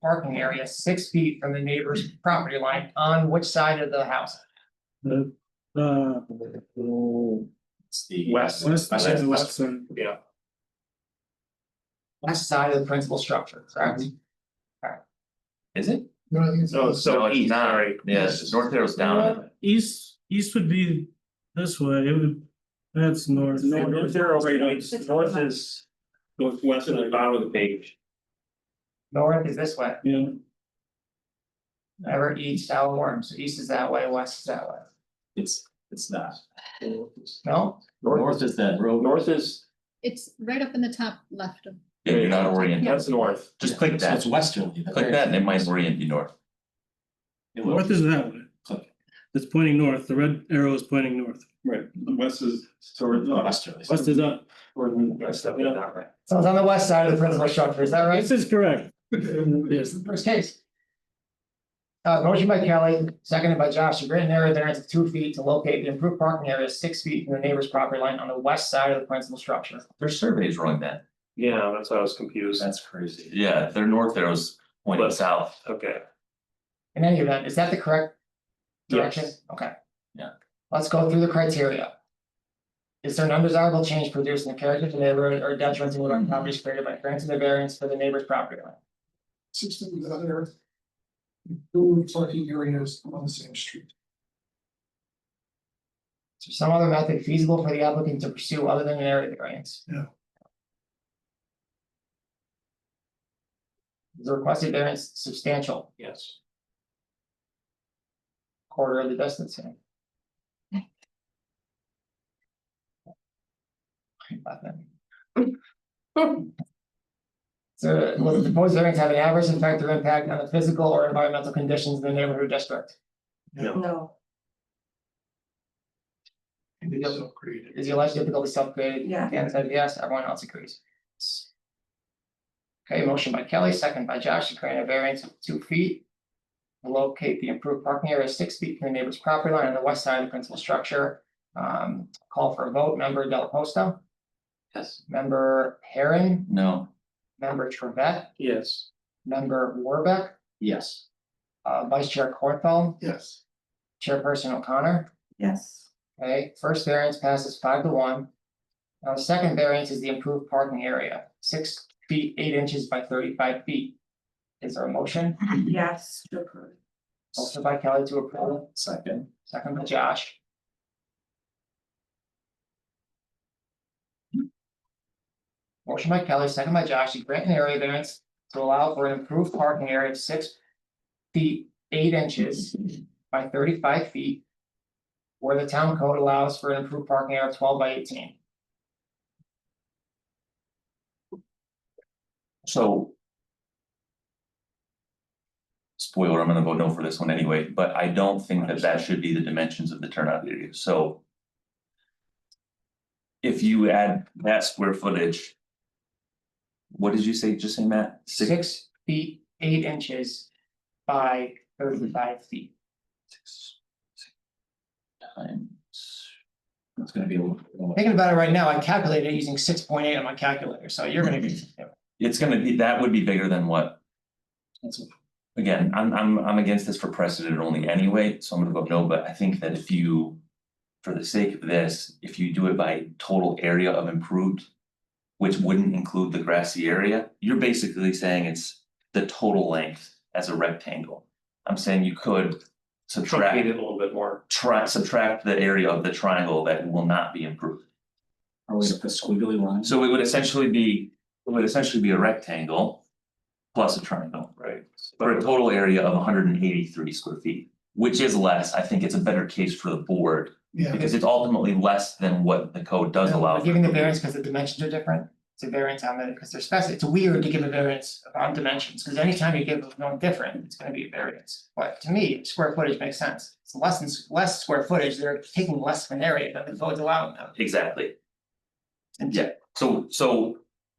parking area six feet from the neighbor's property line on which side of the house? The, uh, It's the. West. west, I yeah, said west side. West side of the principal structure, correct? Alright. Is it? So, so it's east, not. sorry. Yes, North Uh, Arrow's down. East, east would be this way, it would, that's north. North Arrow, right, north is. Northwest at the bottom of the page. North is this way, Yeah, ever east, out warm, so east is that way, west is that way, It's, it's not. no? North is that road. North is, It's right up in the top left of. Yeah, you're not oriented. that's north. Just click that. It's westerly. Click that and it might orient you north. It will. north is that way. Okay. It's pointing north, the red arrow is pointing north. Right, west is toward. Westerly. West is up. So it's on the west side of the principal structure, is that right? This is correct. This is the first case. Uh, motion by Kelly, seconded by Josh, to grant an area variance of two feet to locate the improved parking area six feet from the neighbor's property line on the west side of the principal structure. Their survey is wrong then. Yeah, that's why I was confused. That's crazy. Yeah, their north arrow's pointing But- south. Okay. In any event, is that the correct direction? Yes. Okay. Yeah. Let's go through the criteria. Is there an undesirable change produced in the character of the neighborhood or detriment to the properties created by granting the variance for the neighbor's property line? System with other. Two parking areas on the same street. Is there some other method feasible for the applicant to pursue other than an area variance? No. Is the requested variance substantial Yes. quarter of the distance? here? So will the proposed variance have an adverse effect or impact on the physical or environmental conditions in the neighborhood or district? No, And they also created. Is the alleged difficulty self-created? Yeah. Dan said yes, everyone else agrees. Okay, motion by Kelly, second by Josh, to grant a variance of two feet. Locate the improved parking area six feet from the neighbor's property line on the west side of the principal structure. Um, call for a vote, member Del Posto, Yes. member Perrin, No. member Trevette, Yes. member Warbeck, Yes. uh, vice chair Cornfeld, Yes. chairperson O'Connor. yes, Okay, first variance passes five to one. Now, the second variance is the improved parking area, six feet, eight inches by thirty-five feet. Is there a motion? yes, to approve. Motion by Kelly to approve, Second. second by Josh. Motion by Kelly, second by Josh, to grant an area variance to allow for an improved parking area of six feet, eight inches by thirty-five feet. Where the town code allows for an improved parking area of twelve by eighteen. So. Spoiler, I'm gonna vote no for this one anyway, but I don't think that that should be the dimensions of the turnout area, so. If you add that square footage. What did you say, just say Matt? six feet, eight inches by thirty-five feet. Six. Times. That's gonna be a little. Thinking about it right now, I calculated it using six point eight on my calculator, so you're gonna be. It's gonna be, that would be bigger than what? Again, I'm I'm I'm against this for precedent only anyway, so I'm gonna vote no, but I think that if you. For the sake of this, if you do it by total area of improved. Which wouldn't include the grassy area, you're basically saying it's the total length as a rectangle. I'm saying you could subtract Truncate it a little bit more. try subtract the area of the triangle that will not be improved. Are we at the squiggly line? So it would essentially be, it would essentially be a rectangle plus a triangle Right. for a total area of hundred and eighty-three square feet, which is less. I think it's a better case for the board Yeah. because it's ultimately less than what the code does allow. We're Giving the variance because the dimensions are different, it's a variance on the, because they're specific, it's weird to give a variance on dimensions, because anytime you give one different, it's gonna be a variance. But to me, square footage makes sense, it's less than, less square footage, they're taking less of an area than the code's allowing them. Exactly. And Yeah, so so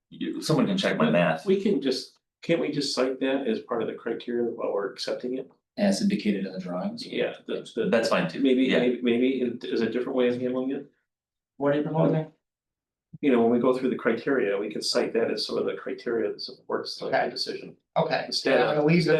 you, someone can check my math. We can just, can't we just cite that as part of the criteria while we're accepting it? As indicated in the drawings? Yeah, that's the, That's fine too. maybe, Yeah, maybe, maybe is a different way of handling it. What are you proposing? You know, when we go through the criteria, we could cite that as some of the criteria that supports like Okay. the decision. Okay, so Instead I'm of- gonna leave the